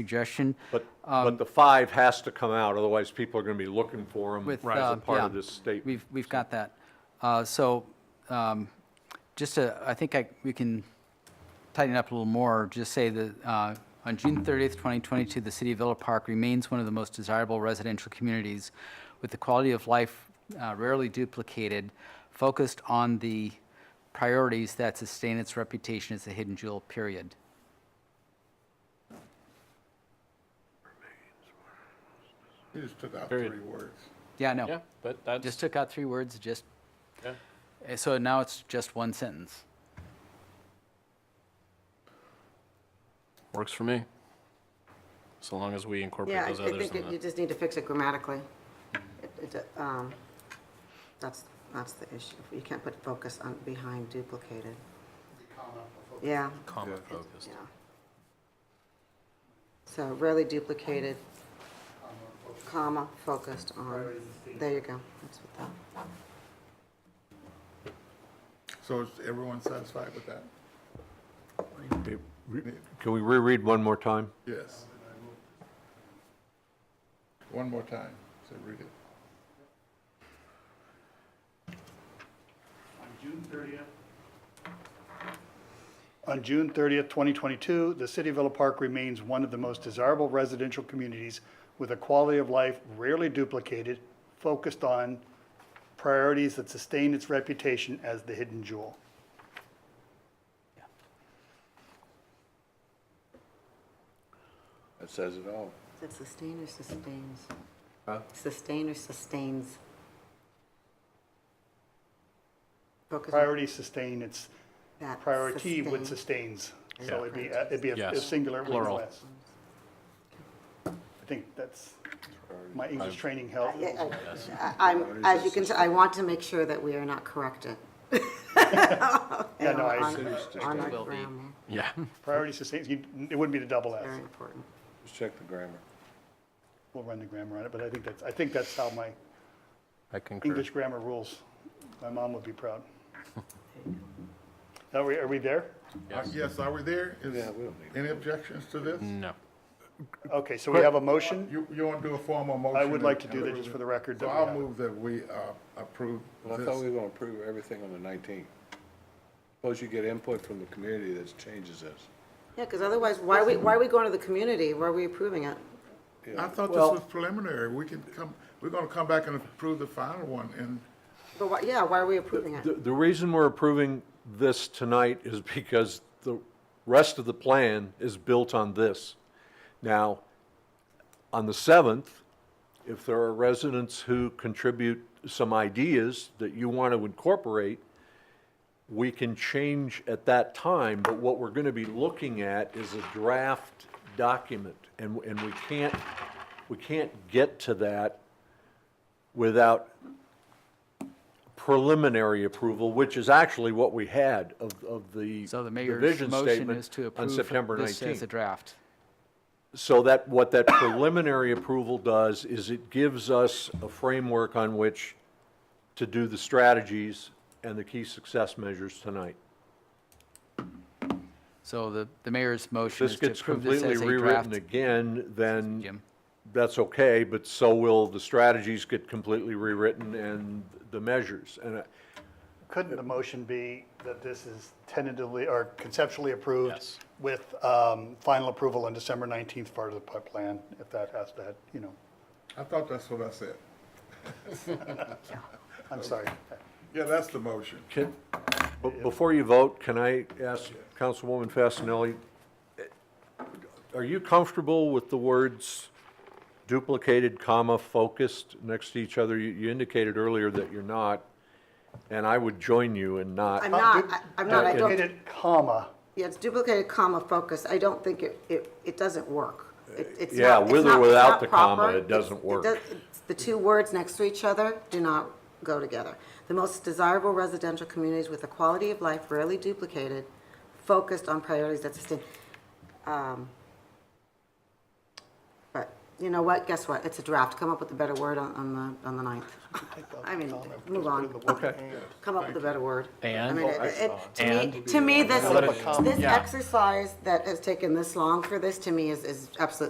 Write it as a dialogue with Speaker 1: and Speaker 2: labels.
Speaker 1: suggestion
Speaker 2: But,
Speaker 1: Um,
Speaker 2: but the five has to come out, otherwise people are going to be looking for them
Speaker 1: with.
Speaker 2: as
Speaker 1: uh,
Speaker 2: a part of
Speaker 1: yeah,
Speaker 2: this statement.
Speaker 1: We've, we've got that. Uh, So um, just to, I think I, we can tighten it up a little more, just say that uh, on June 30th, 2022, the city of Villa Park remains one of the most desirable residential communities with the quality of life uh, rarely duplicated, focused on the priorities that sustain its reputation as a hidden jewel, period.
Speaker 3: You just took out three words.
Speaker 1: Yeah, no.
Speaker 4: Yeah, but that's,
Speaker 1: Just took out three words, just,
Speaker 4: yeah.
Speaker 1: eh, so now it's just one sentence.
Speaker 4: works for me. So long as we incorporate
Speaker 5: Yeah, I I
Speaker 4: those others
Speaker 5: think
Speaker 4: in
Speaker 5: it- you
Speaker 4: the,
Speaker 5: just need to fix it grammatically. It- it, um, That's, that's the issue. You can't put focus on behind duplicated. Yeah,
Speaker 4: comma focused.
Speaker 5: yeah. So rarely duplicated, comma, focused on, there you go. That's what that,
Speaker 3: So is everyone satisfied with that?
Speaker 2: Can we reread one more time?
Speaker 3: Yes. One more time, so read it.
Speaker 6: On June 30th. On June 30th, 2022, the city of Villa Park remains one of the most desirable residential communities with a quality of life rarely duplicated, focused on priorities that sustain its reputation as the hidden jewel.
Speaker 3: That says it all.
Speaker 5: that sustain or sustains? Sustain or sustains? Focus on
Speaker 6: Priority sustain, it's
Speaker 5: that.
Speaker 6: priority
Speaker 5: sustain.
Speaker 6: with sustains. So it'd be, a- it'd be a- a
Speaker 4: Yes,
Speaker 6: singular with
Speaker 4: plural.
Speaker 6: less. I think that's, my English training helped.
Speaker 5: Yeah, I- I- I'm, as you can, tell, I want to make sure that we are not corrected.
Speaker 6: Yeah, no, I-
Speaker 5: On- On our
Speaker 1: Will be.
Speaker 5: grammar,
Speaker 4: Yeah,
Speaker 6: Priority sustains, you- it wouldn't be the double S.
Speaker 5: very important.
Speaker 3: Check the grammar.
Speaker 6: We'll run the grammar on it, but I think that's, I think that's how my
Speaker 4: I concur.
Speaker 6: English grammar rules. My mom would be proud. Are we, are we there?
Speaker 3: Yes, are we there? Is Any objections to this?
Speaker 7: Mm-hmm.
Speaker 4: No.
Speaker 6: Okay, so we have a motion?
Speaker 3: You, you want to do a formal motion?
Speaker 6: I would like to do that just for the record.
Speaker 3: So
Speaker 6: that we
Speaker 3: I'll
Speaker 6: have it.
Speaker 3: move that we uh, approve
Speaker 7: Well, I thought we
Speaker 3: this.
Speaker 7: were gonna approve everything on the nineteenth. Suppose you get input from the community that changes this.
Speaker 5: Yeah, because otherwise, why are we, why are we going to the community? Why are we approving it?
Speaker 3: I thought this was preliminary. We can come, we're gonna come back and approve the final one and
Speaker 5: But why, yeah, why are we approving it?
Speaker 2: The, the reason we're approving this tonight is because the rest of the plan is built on this. Now, on the 7th, if there are residents who contribute some ideas that you want to incorporate, we can change at that time, but what we're going to be looking at is a draft document, and, and we can't, we can't get to that without preliminary approval, which is actually what we had of, of the
Speaker 1: So the mayor's
Speaker 2: vision
Speaker 1: motion
Speaker 2: statement
Speaker 1: is to
Speaker 2: on
Speaker 1: approve
Speaker 2: September
Speaker 1: this as a
Speaker 2: 19th.
Speaker 1: draft.
Speaker 2: So that, what that preliminary approval does is it gives us a framework on which to do the strategies and the key success measures tonight.
Speaker 1: So the, the mayor's
Speaker 2: If
Speaker 1: motion
Speaker 2: this
Speaker 1: is to
Speaker 2: gets
Speaker 1: approve this
Speaker 2: completely
Speaker 1: as a
Speaker 2: rewritten
Speaker 1: draft.
Speaker 2: again, then
Speaker 1: Jim.
Speaker 2: that's okay, but so will the strategies get completely rewritten and the measures. And I-
Speaker 6: Couldn't the motion be that this is tentatively or conceptually approved?
Speaker 4: Yes.
Speaker 6: With um, final approval on December 19th, part of the pu- plan, if that has to, you know,
Speaker 3: I thought that's what I said.
Speaker 6: I'm sorry.
Speaker 3: Yeah, that's the motion.
Speaker 2: can, be- before you vote, can I ask Councilwoman Fasenelli, are you comfortable with the words duplicated, comma, focused next to each other? You- You indicated earlier that you're not, and I would join you in not.
Speaker 5: I'm not, I- I'm not, I don't,
Speaker 6: Duplicated comma,
Speaker 5: yeah, it's duplicated comma focus. I don't think it, it, it doesn't work. It- it's
Speaker 2: Yeah,
Speaker 5: not- it's
Speaker 2: with or
Speaker 5: not- it's
Speaker 2: without
Speaker 5: not
Speaker 2: the comma,
Speaker 5: proper.
Speaker 2: it
Speaker 5: It's-
Speaker 2: doesn't work.
Speaker 5: does- it's- The two words next to each other do not go together. The most desirable residential communities with a quality of life rarely duplicated, focused on priorities that sustain. um, But You know what? Guess what? It's a draft. Come up with a better word on, on the, on the ninth. I mean, move on. Come up with a better word. I
Speaker 8: And?
Speaker 5: mean, it- it- To
Speaker 8: And?
Speaker 5: me, to me, this,
Speaker 4: Let it-
Speaker 5: this
Speaker 4: Yeah.
Speaker 5: exercise that has taken this long for this, to me, is, is absolutely